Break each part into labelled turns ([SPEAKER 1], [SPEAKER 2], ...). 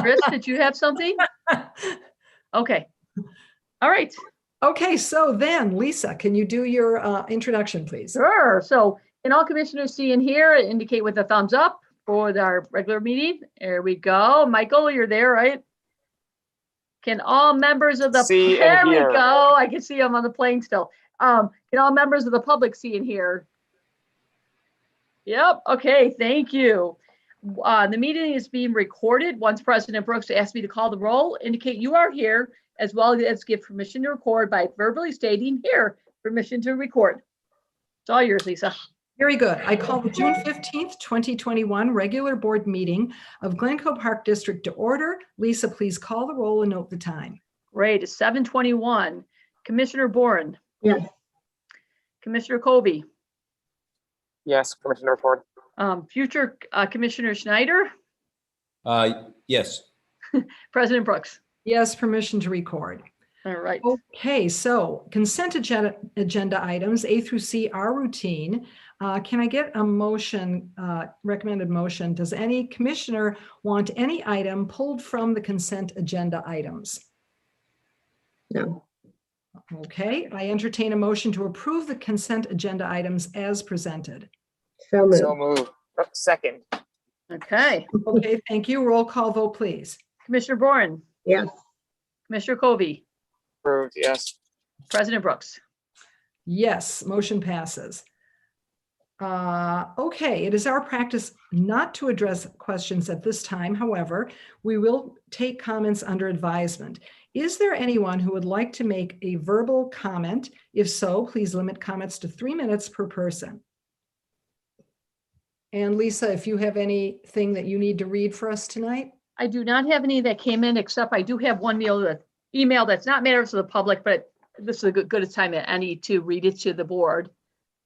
[SPEAKER 1] Chris, did you have something? Okay. All right.
[SPEAKER 2] Okay, so then, Lisa, can you do your uh, introduction, please?
[SPEAKER 1] Sure. So can all commissioners see and hear indicate with a thumbs up for our regular meeting? There we go. Michael, you're there, right? Can all members of the,
[SPEAKER 3] See
[SPEAKER 1] there
[SPEAKER 3] and
[SPEAKER 1] we
[SPEAKER 3] hear.
[SPEAKER 1] go. I can see I'm on the plane still. Um, can all members of the public see and hear? Yep. Okay. Thank you. Uh, the meeting is being recorded. Once President Brooks asked me to call the roll, indicate you are here as well as give permission to record by verbally stating here, permission to record. It's all yours, Lisa.
[SPEAKER 2] Very good. I call the June 15th, 2021 regular board meeting of Glencoe Park District to order. Lisa, please call the roll and note the time.
[SPEAKER 1] Great, it's seven twenty-one. Commissioner Boren.
[SPEAKER 4] Yes.
[SPEAKER 1] Commissioner Kobe,
[SPEAKER 3] Yes, Commissioner Ford.
[SPEAKER 1] um, future uh, Commissioner Schneider,
[SPEAKER 5] Uh, yes,
[SPEAKER 1] President Brooks.
[SPEAKER 2] Yes, permission to record.
[SPEAKER 1] All right,
[SPEAKER 4] Oh.
[SPEAKER 2] Okay, so consent agenda, agenda items A through C are routine. Uh, Can I get a motion, uh, recommended motion? Does any commissioner want any item pulled from the consent agenda items?
[SPEAKER 4] No.
[SPEAKER 2] Okay, I entertain a motion to approve the consent agenda items as presented.
[SPEAKER 4] So
[SPEAKER 3] So
[SPEAKER 4] moved.
[SPEAKER 3] move. Second,
[SPEAKER 1] okay.
[SPEAKER 2] Okay, thank you. Roll call vote, please.
[SPEAKER 1] Commissioner Boren,
[SPEAKER 4] Yes.
[SPEAKER 1] Commissioner Kobe,
[SPEAKER 3] approved, yes.
[SPEAKER 1] President Brooks.
[SPEAKER 2] Yes, motion passes. Uh, Okay, it is our practice not to address questions at this time. However, we will take comments under advisement. Is there anyone who would like to make a verbal comment? If so, please limit comments to three minutes per person. And Lisa, if you have anything that you need to read for us tonight?
[SPEAKER 1] I do not have any that came in, except I do have one meal that email that's not matter to the public, but this is a good, good time at any to read it to the board.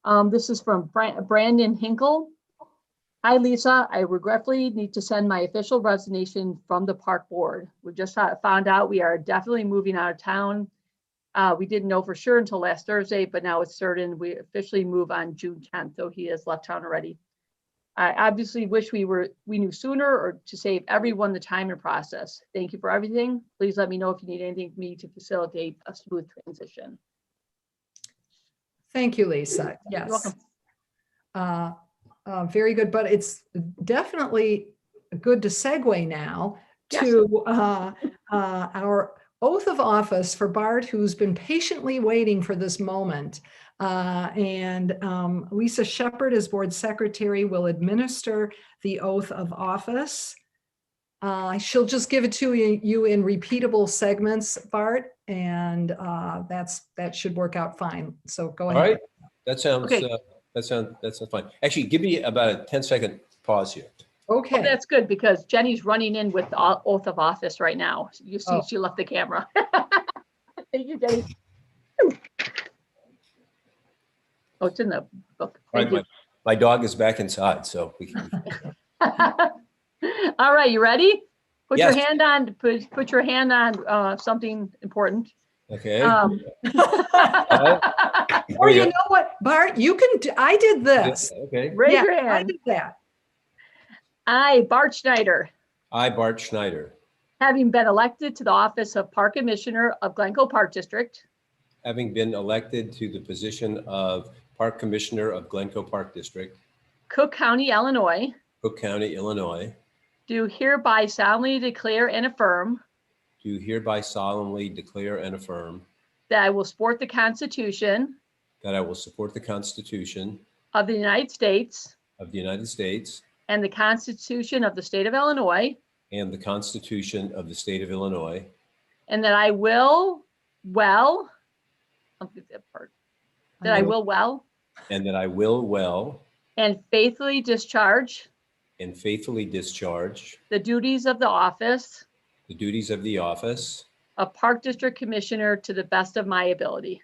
[SPEAKER 1] Um, this is from Bra- Brandon Hinkle. Hi, Lisa. I regretfully need to send my official resignation from the park board. We just fo- found out we are definitely moving out of town. Uh, we didn't know for sure until last Thursday, but now it's certain. We officially move on June tenth, so he has left town already. I obviously wish we were, we knew sooner or to save everyone the time and process. Thank you for everything. Please let me know if you need anything from me to facilitate a smooth transition.
[SPEAKER 2] Thank you, Lisa. Yes.
[SPEAKER 1] welcome.
[SPEAKER 2] Uh, uh, Very good, but it's definitely good to segue now
[SPEAKER 1] Yes.
[SPEAKER 2] to uh, uh, our oath of office for Bart, who's been patiently waiting for this moment. Uh, And um, Lisa Shepherd, as board secretary, will administer the oath of office. Uh, She'll just give it to you you in repeatable segments, Bart, and uh, that's, that should work out fine. So go
[SPEAKER 5] all
[SPEAKER 2] ahead.
[SPEAKER 5] right. That sounds,
[SPEAKER 1] Okay.
[SPEAKER 5] uh, that sounds, that sounds fine. Actually, give me about a 10 second pause here.
[SPEAKER 2] Okay.
[SPEAKER 1] Well, That's good because Jenny's running in with the o- oath of office right now. You see,
[SPEAKER 2] Oh.
[SPEAKER 1] she left the camera. Thank you, Jenny. Oh, it's in the book.
[SPEAKER 5] All
[SPEAKER 1] Thank
[SPEAKER 5] right,
[SPEAKER 1] you.
[SPEAKER 5] my- My dog is back inside, so we can,
[SPEAKER 1] All right, you ready? Put your
[SPEAKER 5] Yes.
[SPEAKER 1] hand on, put, put your hand on, uh, something important.
[SPEAKER 5] okay.
[SPEAKER 2] Uh,
[SPEAKER 1] Um,
[SPEAKER 5] Here
[SPEAKER 2] Or
[SPEAKER 5] we
[SPEAKER 2] you
[SPEAKER 5] go.
[SPEAKER 2] know what, Bart, you can, do- I did this.
[SPEAKER 5] Okay.
[SPEAKER 1] Raise
[SPEAKER 2] Yeah,
[SPEAKER 1] your
[SPEAKER 2] I
[SPEAKER 1] hand.
[SPEAKER 2] did that.
[SPEAKER 1] I, Bart Schneider,
[SPEAKER 5] I, Bart Schneider,
[SPEAKER 1] having been elected to the office of Park Commissioner of Glencoe Park District,
[SPEAKER 5] having been elected to the position of Park Commissioner of Glencoe Park District,
[SPEAKER 1] Cook County, Illinois,
[SPEAKER 5] Cook County, Illinois,
[SPEAKER 1] do hereby solemnly declare and affirm
[SPEAKER 5] do hereby solemnly declare and affirm
[SPEAKER 1] that I will support the Constitution
[SPEAKER 5] that I will support the Constitution
[SPEAKER 1] of the United States
[SPEAKER 5] of the United States
[SPEAKER 1] and the Constitution of the State of Illinois,
[SPEAKER 5] and the Constitution of the State of Illinois,
[SPEAKER 1] and that I will well, I'll get that part, that I will well
[SPEAKER 5] and that I will well
[SPEAKER 1] and faithfully discharge
[SPEAKER 5] and faithfully discharge
[SPEAKER 1] the duties of the office
[SPEAKER 5] the duties of the office
[SPEAKER 1] of Park District Commissioner to the best of my ability.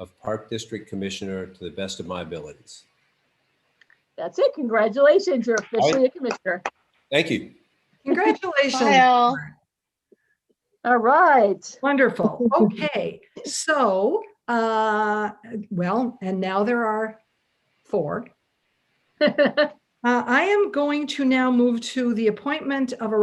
[SPEAKER 5] of Park District Commissioner to the best of my abilities.
[SPEAKER 1] That's it. Congratulations, you're officially a commissioner.
[SPEAKER 5] Thank you.
[SPEAKER 2] Congratulations.
[SPEAKER 6] Kyle.
[SPEAKER 1] All right.
[SPEAKER 2] Wonderful. Okay, so, uh, well, and now there are four. Uh, I am going to now move to the appointment of a